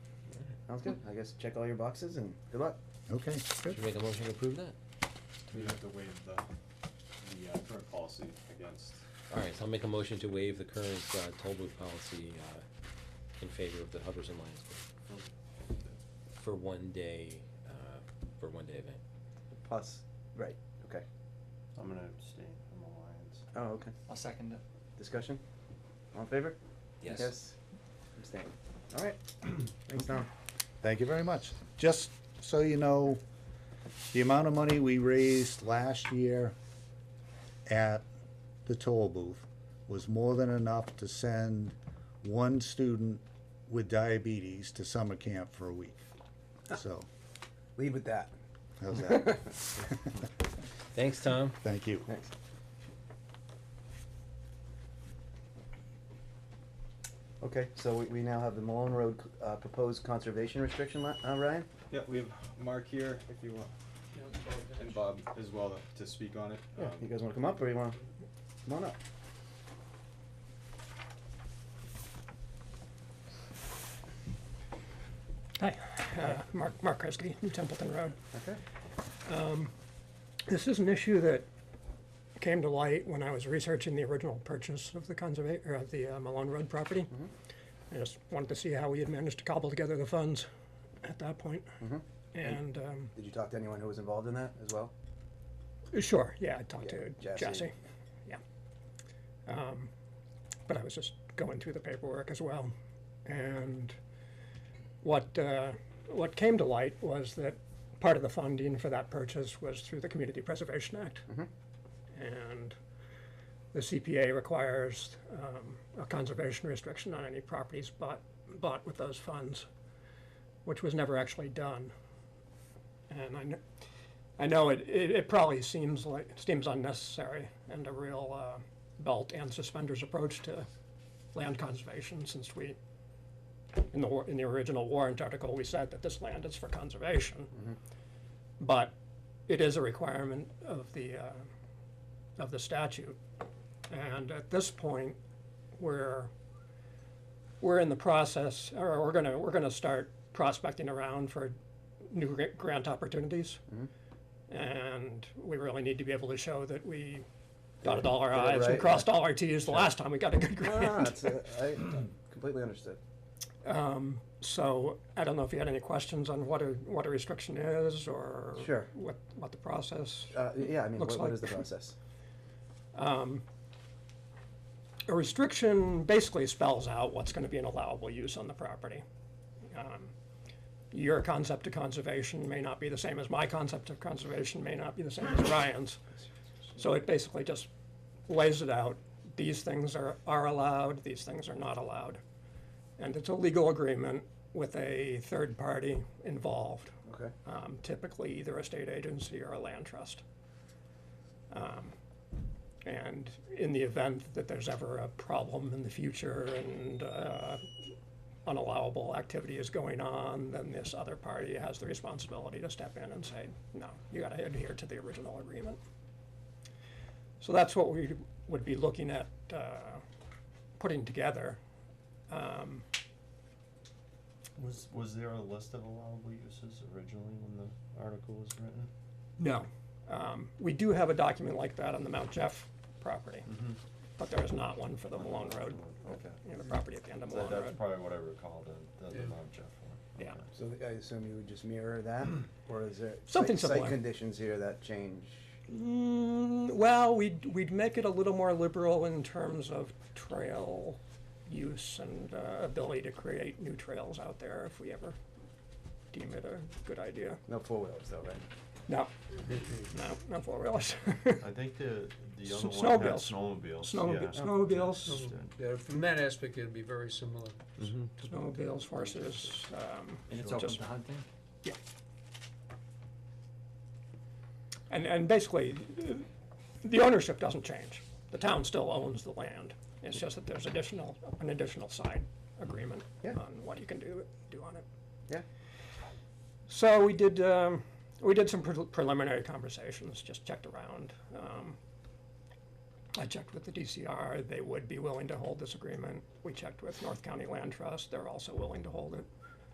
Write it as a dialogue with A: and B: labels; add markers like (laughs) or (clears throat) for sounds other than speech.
A: Sounds good. I guess check all your boxes and good luck.
B: Okay, good.
C: Should we make a motion to approve that?
D: We have to waive the, the uh, current policy against,
C: Alright, so I'll make a motion to waive the current, uh, toll booth policy, uh, in favor of the Hubbard's and Lions Club
D: for-
C: for one day, uh, for one day event.
A: Plus, right, okay.
D: I'm gonna abstain from Alliance.
A: Oh, okay.
E: I'll second it.
A: Discussion? All in favor? Yes. Abstain. All right. (clears throat) Thanks, Tom.
B: Thank you very much. Just so you know, the amount of money we raised last year at the toll booth was more than enough to send one student with diabetes to summer camp for a week. So,
A: Leave with that.
B: how's that? (laughs)
C: Thanks, Tom.
B: Thank you.
A: (laughs) Thanks. Okay, so we, we now have the Malone Road, uh, proposed conservation restriction li- uh, Ryan?
D: Yeah, we have Mark here, if you want, and Bob as well to speak on it.
A: Yeah,
D: Um,
A: you guys wanna come up or you wanna, come on up?
F: Hi, uh, Mark, Mark Kresge, New Templeton Road.
A: Okay.
F: This is an issue that came to light when I was researching the original purchase of the conserva- or of the uh, Malone Road property. I just wanted to see how we had managed to cobble together the funds at that point. And, um,
A: Did you talk to anyone who was involved in that as (laughs) well?
F: sure, yeah, I talked
A: Yeah,
F: to
A: Jesse.
F: Jesse, yeah. Um, But I was just going through the paperwork as well. And what, uh, what came to light was that part of the funding for that purchase was through the Community Preservation Act.
A: Mm-hmm.
F: And the CPA requires um, a conservation restriction on any properties bought, bought with those funds, which was never actually done. And I know, I know it, it, it probably seems like, seems unnecessary and a real uh, belt and suspenders approach to land conservation since we, in the, war- in the original warrant article, we said that this land is for conservation.
A: Mm-hmm.
F: But it is a requirement of the, uh, of the statute. And at this point, we're, we're in the process, or we're gonna, we're gonna start prospecting around for new gra- grant opportunities.
A: Mm-hmm.
F: And we really need to be able to show that we dotted all our
A: Did it
F: i's and
A: right,
F: crossed all our t's the last time we got a good
A: No, no, no,
F: grant.
A: it's, uh, I completely understood.
F: So I don't know if you had any questions on what a, what a restriction is or
A: Sure.
F: what, what the process.
A: Uh, yeah, I mean,
F: Looks
A: what, what
F: like-
A: is the process?
F: A restriction basically spells out what's going to be an allowable use on the property. Um, Your concept of conservation may not be the same as my concept of conservation, may not be the same as Ryan's. So it basically just lays it out. These things are, are allowed, these things are not allowed. And it's a legal agreement with a third party involved.
A: Okay,
F: um, typically either a state agency or a land trust. Um, And in the event that there's ever a problem in the future and uh, unallowable activity is going on, then this other party has the responsibility to step in and say, no, you gotta adhere to the original agreement. So that's what we would be looking at uh, putting together. Um,
D: Was, was there a list of allowable uses originally when the article was written?
F: No. Um, we do have a document like that on the Mount Jeff property, but there is not one for the Malone Road,
D: Mm-hmm. Okay.
F: you know, the property at the end of
D: So
F: Malone
D: That's
F: Road.
D: probably what I recalled, the, the Mount Jeff one.
F: Yeah.
D: Okay.
A: so I assume you would just mirror
E: (clears throat)
A: that, or is there
F: Something
A: site, site
F: similar.
A: conditions here that change?
F: Mm, well, we'd, we'd make it a little more liberal in terms of trail use and uh, ability to create new trails out there if we ever deem it a good idea.
A: No four wheelers though, right?
F: No, no, not four wheelers. (laughs)
D: I think the, the
F: S-
D: other one had
F: snowmobiles.
D: snowmobiles,
F: Snowmobi-
D: yeah.
F: snowmobiles.
G: Yeah, from that aspect, it'd be very similar.
F: Snowmobiles, horses, um,
E: And it's open
F: just
E: to hunting?
F: And, and basically, uh, the ownership doesn't change. The town still owns the land. It's just that there's additional, an additional side agreement
A: Yeah.
F: on what you can do, do on it.
A: Yeah.
F: So we did, um, we did some pre- preliminary conversations, just checked around. Um, I checked with the DCR, they would be willing to hold this agreement. We checked with North County Land Trust, they're also willing to hold it.